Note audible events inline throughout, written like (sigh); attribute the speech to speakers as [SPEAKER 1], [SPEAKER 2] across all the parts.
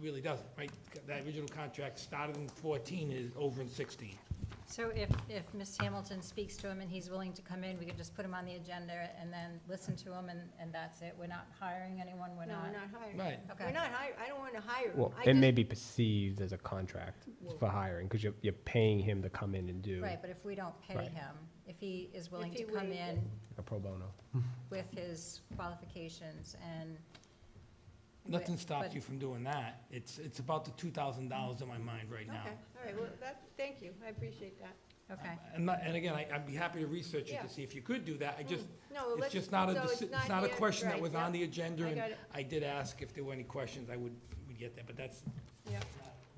[SPEAKER 1] really doesn't, right? That original contract started in fourteen, is over in sixteen.
[SPEAKER 2] So if, if Ms. Hamilton speaks to him and he's willing to come in, we could just put him on the agenda and then listen to him and, and that's it? We're not hiring anyone, we're
[SPEAKER 3] No,
[SPEAKER 2] not?
[SPEAKER 3] we're not hiring.
[SPEAKER 1] Right.
[SPEAKER 3] We're
[SPEAKER 2] Okay.
[SPEAKER 3] not hiring, I don't want to hire.
[SPEAKER 4] Well,
[SPEAKER 3] I
[SPEAKER 4] it may
[SPEAKER 3] just-
[SPEAKER 4] be perceived as a contract for hiring, because you're, you're paying him to come in and do
[SPEAKER 2] Right, but if we don't pay
[SPEAKER 4] Right.
[SPEAKER 2] him, if he is willing
[SPEAKER 3] If
[SPEAKER 2] to
[SPEAKER 3] he
[SPEAKER 2] come
[SPEAKER 3] waived it.
[SPEAKER 2] in
[SPEAKER 4] a pro bono.
[SPEAKER 2] with his qualifications and.
[SPEAKER 1] Nothing
[SPEAKER 2] with-
[SPEAKER 1] stops
[SPEAKER 2] but-
[SPEAKER 1] you from doing that. It's, it's about the two thousand dollars in my mind right now.
[SPEAKER 3] Okay, all right, well, that, thank you, I appreciate that.
[SPEAKER 2] Okay,
[SPEAKER 1] And, not- and again, I, I'd be happy to research it
[SPEAKER 3] Yeah.
[SPEAKER 1] to see if you could do that. I just,
[SPEAKER 3] No,
[SPEAKER 1] it's
[SPEAKER 3] let's.
[SPEAKER 1] just not a,
[SPEAKER 3] so
[SPEAKER 1] deci- it's not a
[SPEAKER 3] yet,
[SPEAKER 1] question that
[SPEAKER 3] right,
[SPEAKER 1] was
[SPEAKER 3] yeah,
[SPEAKER 1] on the agenda.
[SPEAKER 3] I
[SPEAKER 1] and
[SPEAKER 3] got it,
[SPEAKER 1] I did ask if there were any questions, I would, would get that, but that's
[SPEAKER 3] yeah,
[SPEAKER 1] not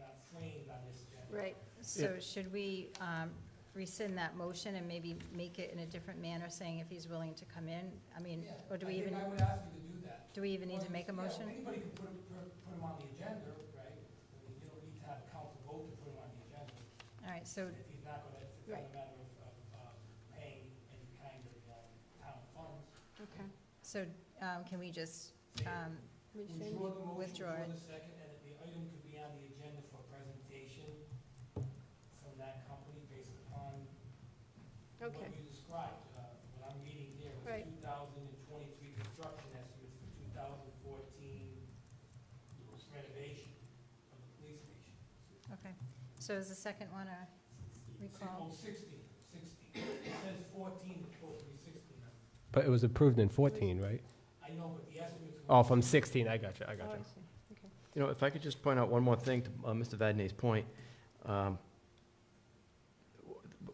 [SPEAKER 1] not framed on this agenda.
[SPEAKER 3] right.
[SPEAKER 2] so should we um, rescind that motion and maybe make it in a different manner, saying if he's willing to come in? I mean,
[SPEAKER 1] Yeah,
[SPEAKER 2] or do we
[SPEAKER 1] I think
[SPEAKER 2] even,
[SPEAKER 1] I would ask you to do that.
[SPEAKER 2] do we even need to make a
[SPEAKER 1] Yeah,
[SPEAKER 2] motion?
[SPEAKER 1] Anybody can put, put, put 'em on the agenda, right? I mean, you don't need to have a council vote to put him on the agenda.
[SPEAKER 2] All right, so,
[SPEAKER 1] If he's not gonna, it's not a
[SPEAKER 3] Right.
[SPEAKER 1] matter of, of, uh, paying any kind of, um, town funds.
[SPEAKER 3] Okay.
[SPEAKER 2] so um, can we just, um,
[SPEAKER 3] We
[SPEAKER 1] Withdraw the motion,
[SPEAKER 3] send-
[SPEAKER 2] Withdraw
[SPEAKER 1] withdraw
[SPEAKER 2] it.
[SPEAKER 1] the second, and the item could be on the agenda for presentation from that company based upon what
[SPEAKER 3] Okay,
[SPEAKER 1] you described. Uh, what I'm reading here was
[SPEAKER 3] Right.
[SPEAKER 1] two thousand and twenty-three construction estimates for two thousand fourteen renovation of the police station.
[SPEAKER 2] okay, so is the second one a recall?
[SPEAKER 1] Oh, sixteen, sixteen. It says fourteen, it's supposed to be sixteen.
[SPEAKER 4] But it was approved in fourteen, right?
[SPEAKER 1] I know, but the estimates. were-
[SPEAKER 4] Oh, from sixteen, I got you, I
[SPEAKER 3] oh,
[SPEAKER 4] got
[SPEAKER 3] I
[SPEAKER 4] you.
[SPEAKER 3] see, okay.
[SPEAKER 5] You know, if I could just point out one more thing to uh, Mr. Vadney's point. um,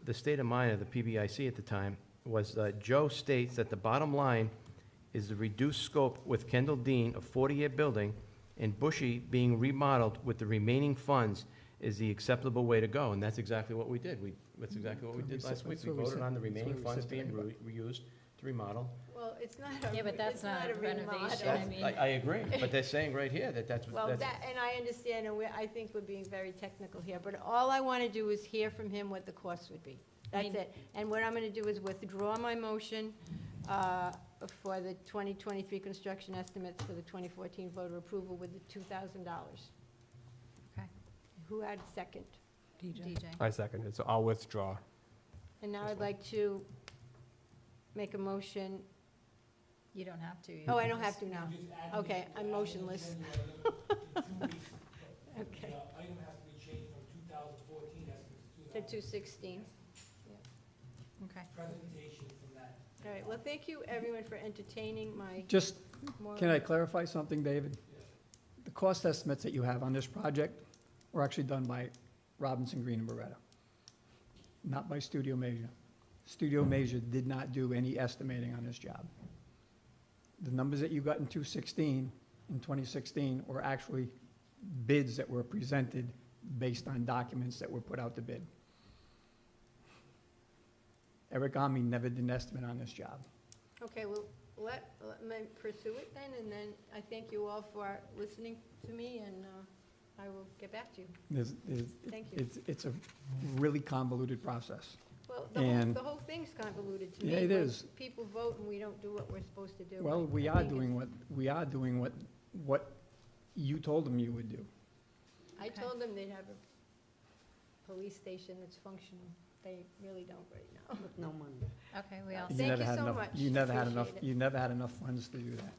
[SPEAKER 5] The state of mind of the PBIC at the time was, uh, Joe states that the bottom line is the reduced scope with Kendall Dean, a 40-year building, and Bushy being remodeled with the remaining funds is the acceptable way to go. And that's exactly what we did. We, that's exactly what we did
[SPEAKER 4] That's what we said-
[SPEAKER 5] last week.
[SPEAKER 4] that's
[SPEAKER 5] We
[SPEAKER 4] what we
[SPEAKER 5] voted
[SPEAKER 4] said-
[SPEAKER 5] on the
[SPEAKER 4] that's what
[SPEAKER 5] remaining
[SPEAKER 4] we
[SPEAKER 5] funds
[SPEAKER 4] said to
[SPEAKER 5] being re- reused to remodel.
[SPEAKER 3] Well, it's not a.
[SPEAKER 2] Yeah, but that's
[SPEAKER 3] it's
[SPEAKER 2] not
[SPEAKER 3] a
[SPEAKER 2] renovation,
[SPEAKER 3] remodel.
[SPEAKER 2] I mean-
[SPEAKER 5] I, I agree, but they're saying right here that that's,
[SPEAKER 3] Well,
[SPEAKER 5] that's
[SPEAKER 3] that, and I understand, and we, I think we're being very technical here, but all I want to do is hear from him what the cost would be. That's
[SPEAKER 2] mean-
[SPEAKER 3] it. And what I'm going to do is withdraw my motion uh, for the 2023 construction estimates for the 2014 voter approval with the $2,000.
[SPEAKER 2] Okay.
[SPEAKER 3] Who had second?
[SPEAKER 2] DJ.
[SPEAKER 4] I seconded, so I'll withdraw.
[SPEAKER 3] And now
[SPEAKER 4] This
[SPEAKER 3] I'd
[SPEAKER 4] one.
[SPEAKER 3] like to make a motion,
[SPEAKER 2] You don't have to. you
[SPEAKER 3] oh, I
[SPEAKER 2] can
[SPEAKER 3] don't have
[SPEAKER 2] just-
[SPEAKER 3] to now.
[SPEAKER 1] You just add the-
[SPEAKER 3] Okay,
[SPEAKER 1] you
[SPEAKER 3] I'm
[SPEAKER 1] add the
[SPEAKER 3] motionless.
[SPEAKER 1] agenda
[SPEAKER 3] (laughs)
[SPEAKER 1] item in two weeks. The
[SPEAKER 3] Okay.
[SPEAKER 1] uh, item has to be changed from two thousand fourteen estimates to
[SPEAKER 3] To
[SPEAKER 1] 2000
[SPEAKER 3] 216.
[SPEAKER 2] Okay.
[SPEAKER 1] presentation from that.
[SPEAKER 3] All right, well, thank you, everyone, for entertaining my.
[SPEAKER 6] Just,
[SPEAKER 3] more-
[SPEAKER 6] can I clarify something, David? The cost estimates that you have on this project were actually done by Robinson Green and Beretta, not by Studio Measure. Studio Measure did not do any estimating on this job. The numbers that you got in 216, in 2016, were actually bids that were presented based on documents that were put out to bid. Eric Army never did an estimate on this job.
[SPEAKER 3] Okay, well, let, let me pursue it then, and then I thank you all for listening to me, and uh, I will get back to you.
[SPEAKER 6] There's, there's,
[SPEAKER 3] Thank you.
[SPEAKER 6] it's, it's a really convoluted process.
[SPEAKER 3] Well, the whole,
[SPEAKER 6] And-
[SPEAKER 3] the whole thing's convoluted to me.
[SPEAKER 6] Yeah, it
[SPEAKER 3] when
[SPEAKER 6] is.
[SPEAKER 3] People vote and we don't do what we're supposed to do.
[SPEAKER 6] Well, we
[SPEAKER 3] I
[SPEAKER 6] are
[SPEAKER 3] think it's-
[SPEAKER 6] doing what, we are doing what, what you told them you would do.
[SPEAKER 3] I
[SPEAKER 2] Okay.
[SPEAKER 3] told them they'd have a police station that's functional. They really don't right now.
[SPEAKER 7] No money.
[SPEAKER 2] Okay, we all,
[SPEAKER 3] Yeah.
[SPEAKER 6] You
[SPEAKER 2] see.
[SPEAKER 3] Thank
[SPEAKER 6] never
[SPEAKER 3] you
[SPEAKER 6] had
[SPEAKER 3] so
[SPEAKER 6] enough-
[SPEAKER 3] much.
[SPEAKER 6] You never had enough,
[SPEAKER 3] Appreciate it.
[SPEAKER 6] you never had enough funds to do that.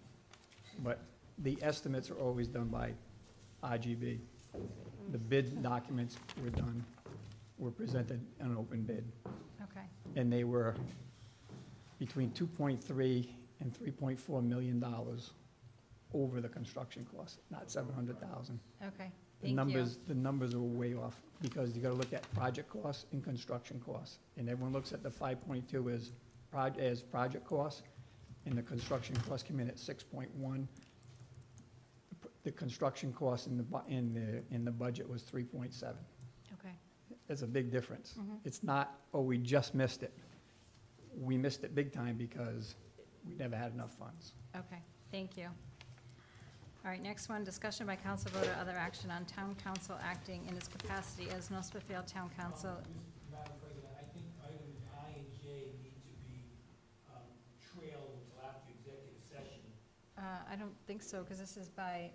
[SPEAKER 6] But the estimates are always done by RGB. The bid documents were done, were presented in an open bid.
[SPEAKER 2] okay,
[SPEAKER 6] and they were between 2.3 and 3.4 million dollars over the construction cost, not 700,000.
[SPEAKER 2] okay.
[SPEAKER 6] The
[SPEAKER 2] Thank you.
[SPEAKER 6] numbers, the numbers are way off, because you gotta look at project costs and construction costs. And everyone looks at the 5.2 as, proj- as project costs, and the construction costs come in at 6.1. The construction cost in the, bu- in the, in the budget was 3.7.
[SPEAKER 2] Okay,
[SPEAKER 6] That's a big difference.
[SPEAKER 3] Mm-hmm.
[SPEAKER 2] Mhm.
[SPEAKER 6] It's not, oh, we just missed it. We missed it big time because we never had enough funds.
[SPEAKER 2] okay, thank you. All right, next one, discussion by council vote or other action on town council acting in its capacity as North Smithfield Town Council.
[SPEAKER 1] Um, Mr. Madam President, I think items I and J need to be um, trailed until after executive session.
[SPEAKER 2] Uh, I don't think so, because this is by